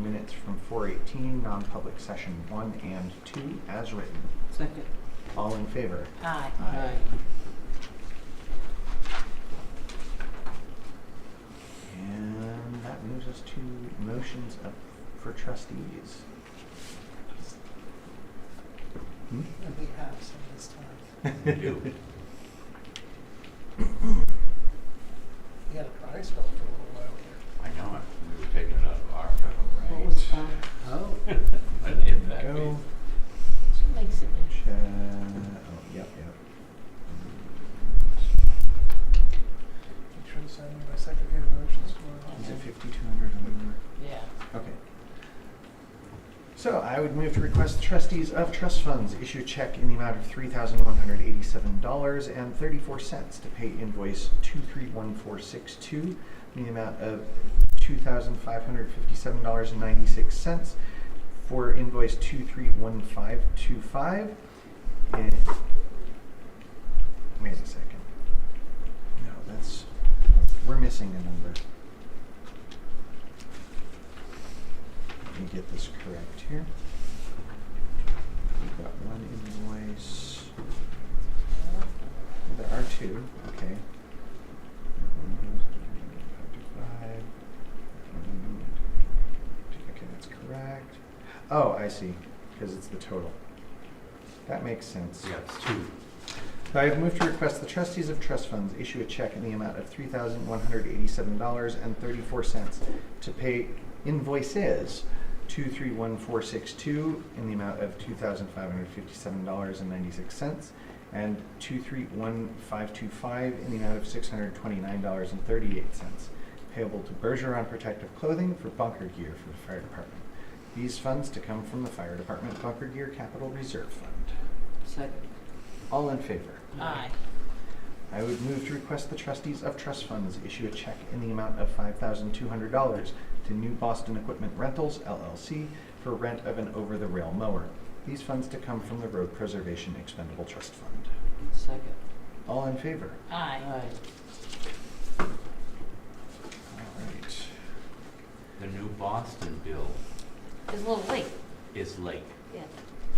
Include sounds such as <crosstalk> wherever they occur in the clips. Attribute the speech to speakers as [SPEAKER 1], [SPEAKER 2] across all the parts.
[SPEAKER 1] minutes from four eighteen, non-public session one and two as written.
[SPEAKER 2] Second.
[SPEAKER 1] All in favor?
[SPEAKER 3] Aye.
[SPEAKER 1] Aye. And that moves us to motions up for trustees. Hmm?
[SPEAKER 4] And we have some this time.
[SPEAKER 5] We
[SPEAKER 1] <laughs>
[SPEAKER 5] do.
[SPEAKER 4] We had a prize belt for a little while here.
[SPEAKER 5] I know it. We were taking it out of our.
[SPEAKER 2] What was that? Oh.
[SPEAKER 5] <laughs> I named that.
[SPEAKER 1] Go.
[SPEAKER 3] She makes it.
[SPEAKER 1] Ch- uh, oh, yep, yep.
[SPEAKER 4] Make sure to send me my secondary motions
[SPEAKER 1] Is
[SPEAKER 4] tomorrow.
[SPEAKER 1] it fifty-two hundred or?
[SPEAKER 3] Yeah.
[SPEAKER 1] Okay. So I would move to request the trustees of trust funds issue check in the amount of three thousand one hundred eighty-seven dollars and thirty-four cents to pay invoice two three one four six two in the amount of two thousand five hundred fifty-seven dollars and ninety-six cents for invoice two three one five two five. Wait a second. No, that's, we're missing a number. Let me get this correct here. We've got one invoice. There are two, okay. Okay, that's correct. Oh, I see, because it's the total. That makes sense.
[SPEAKER 5] Yeah, it's two.
[SPEAKER 1] I have moved to request the trustees of trust funds issue a check in the amount of three thousand one hundred eighty-seven dollars and thirty-four cents to pay invoices two three one four six two in the amount of two thousand five hundred fifty-seven dollars and ninety-six cents and two three one five two five in the amount of six hundred twenty-nine dollars and thirty-eight cents payable to Bergeron Protective Clothing for bunker gear for the fire department. These funds to come from the fire department bunker gear capital reserve fund.
[SPEAKER 2] Second.
[SPEAKER 1] All in favor?
[SPEAKER 3] Aye.
[SPEAKER 1] I would move to request the trustees of trust funds issue a check in the amount of five thousand two hundred dollars to New Boston Equipment Rentals LLC for rent of an over-the-rail mower. These funds to come from the Road Preservation Expendable Trust Fund.
[SPEAKER 2] Second.
[SPEAKER 1] All in favor?
[SPEAKER 3] Aye.
[SPEAKER 2] Aye.
[SPEAKER 1] All right.
[SPEAKER 5] The new Boston bill
[SPEAKER 3] It's a little late.
[SPEAKER 5] is late.
[SPEAKER 3] Yeah.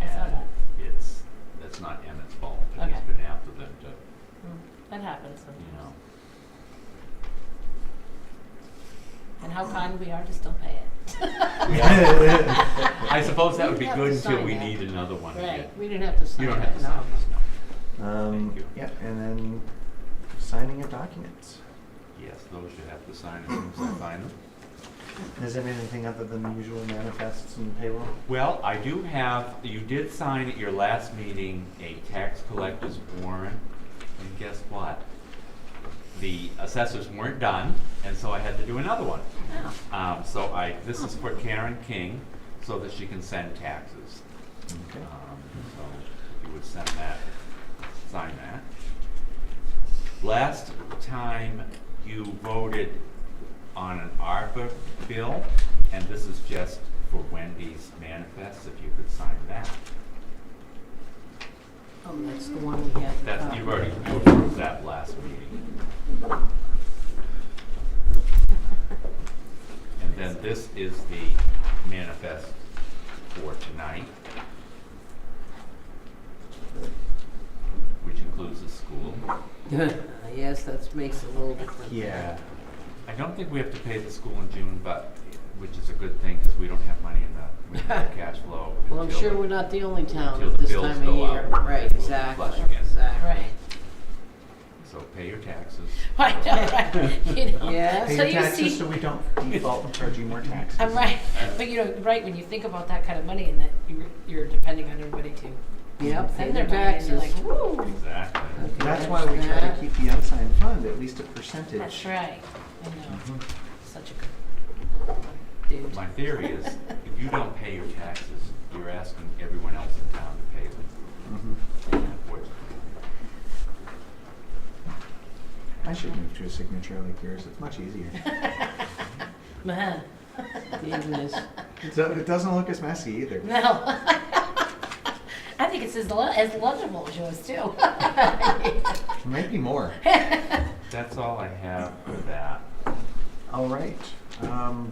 [SPEAKER 3] I saw
[SPEAKER 5] And
[SPEAKER 3] that.
[SPEAKER 5] it's, that's not Emmett's fault. It has
[SPEAKER 3] Okay.
[SPEAKER 5] been after them to,
[SPEAKER 3] Mm, That happens
[SPEAKER 5] you know.
[SPEAKER 3] sometimes. And how kind we are to still pay
[SPEAKER 5] <laughs>
[SPEAKER 3] it.
[SPEAKER 5] I suppose that would be
[SPEAKER 3] We have
[SPEAKER 5] good
[SPEAKER 3] to
[SPEAKER 5] until
[SPEAKER 3] sign
[SPEAKER 5] we
[SPEAKER 3] that.
[SPEAKER 5] need another one again.
[SPEAKER 3] Right, we didn't have to sign
[SPEAKER 5] You
[SPEAKER 3] it.
[SPEAKER 5] don't have to
[SPEAKER 3] no.
[SPEAKER 5] sign this, no.
[SPEAKER 1] Um,
[SPEAKER 5] Thank you.
[SPEAKER 1] yeah, and then signing of documents.
[SPEAKER 5] Yes, those you have to sign as soon as I find them.
[SPEAKER 1] Is there anything other than the usual manifests and payroll?
[SPEAKER 5] Well, I do have, you did sign at your last meeting a tax collector's warrant, and guess what? The assessors weren't done, and so I had to do another one.
[SPEAKER 3] Oh,
[SPEAKER 5] Um, so I, this is for Karen King, so that she can send taxes.
[SPEAKER 1] Okay.
[SPEAKER 5] Um, so if you would send that, sign that. Last time you voted on an ARPA bill, and this is just for Wendy's manifest, if you could sign that.
[SPEAKER 2] Oh, that's the one we had.
[SPEAKER 5] That's,
[SPEAKER 2] uh,
[SPEAKER 5] you've already you approved that last meeting. And then this is the manifest for tonight, which includes the school.
[SPEAKER 2] <laughs> Yes, that makes it a little different.
[SPEAKER 3] <laughs>
[SPEAKER 1] Yeah.
[SPEAKER 5] I don't think we have to pay the school in June, but, which is a good thing, because we don't have money in the, we don't have cash
[SPEAKER 2] <laughs>
[SPEAKER 5] flow.
[SPEAKER 2] Well, I'm
[SPEAKER 5] until
[SPEAKER 2] sure
[SPEAKER 5] the-
[SPEAKER 2] we're not the only town
[SPEAKER 5] Until
[SPEAKER 2] at
[SPEAKER 5] the
[SPEAKER 2] this
[SPEAKER 5] bills
[SPEAKER 2] time of
[SPEAKER 5] go
[SPEAKER 2] year.
[SPEAKER 5] out,
[SPEAKER 2] Right,
[SPEAKER 5] we'll flush
[SPEAKER 2] exactly,
[SPEAKER 5] again.
[SPEAKER 2] exactly.
[SPEAKER 3] right.
[SPEAKER 5] So pay
[SPEAKER 2] <laughs>
[SPEAKER 5] your taxes.
[SPEAKER 3] I know, right, you know.
[SPEAKER 2] Yes.
[SPEAKER 1] Pay
[SPEAKER 3] So
[SPEAKER 1] your
[SPEAKER 3] you
[SPEAKER 1] taxes
[SPEAKER 3] see,
[SPEAKER 1] so we don't default and charge you more taxes.
[SPEAKER 3] I'm right, but you know, right, when you think about that kind of money and that you're, you're depending on everybody to
[SPEAKER 2] Yep, pay
[SPEAKER 3] send
[SPEAKER 2] their
[SPEAKER 3] their money and you're
[SPEAKER 2] taxes.
[SPEAKER 3] like, woo.
[SPEAKER 5] Exactly.
[SPEAKER 2] Okay,
[SPEAKER 1] That's why we try
[SPEAKER 2] there's
[SPEAKER 1] to keep the unsigned fund at least a percentage.
[SPEAKER 3] That's right, I know,
[SPEAKER 1] Mhm.
[SPEAKER 3] such a good dude.
[SPEAKER 5] My theory is, if
[SPEAKER 3] <laughs>
[SPEAKER 5] you don't pay your taxes, you're asking everyone else in town to pay them,
[SPEAKER 1] Mhm.
[SPEAKER 5] unfortunately.
[SPEAKER 1] I should move to a signature like yours. It's much
[SPEAKER 3] <laughs>
[SPEAKER 1] easier.
[SPEAKER 3] Man.
[SPEAKER 2] that. Even this,
[SPEAKER 1] It do- <laughs> it doesn't look as messy either.
[SPEAKER 3] No. <laughs> I think it's as, le- as legible as yours too. <laughs>
[SPEAKER 1] Maybe more.
[SPEAKER 5] That's all I have for that.
[SPEAKER 1] All right. Um,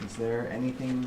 [SPEAKER 1] is there anything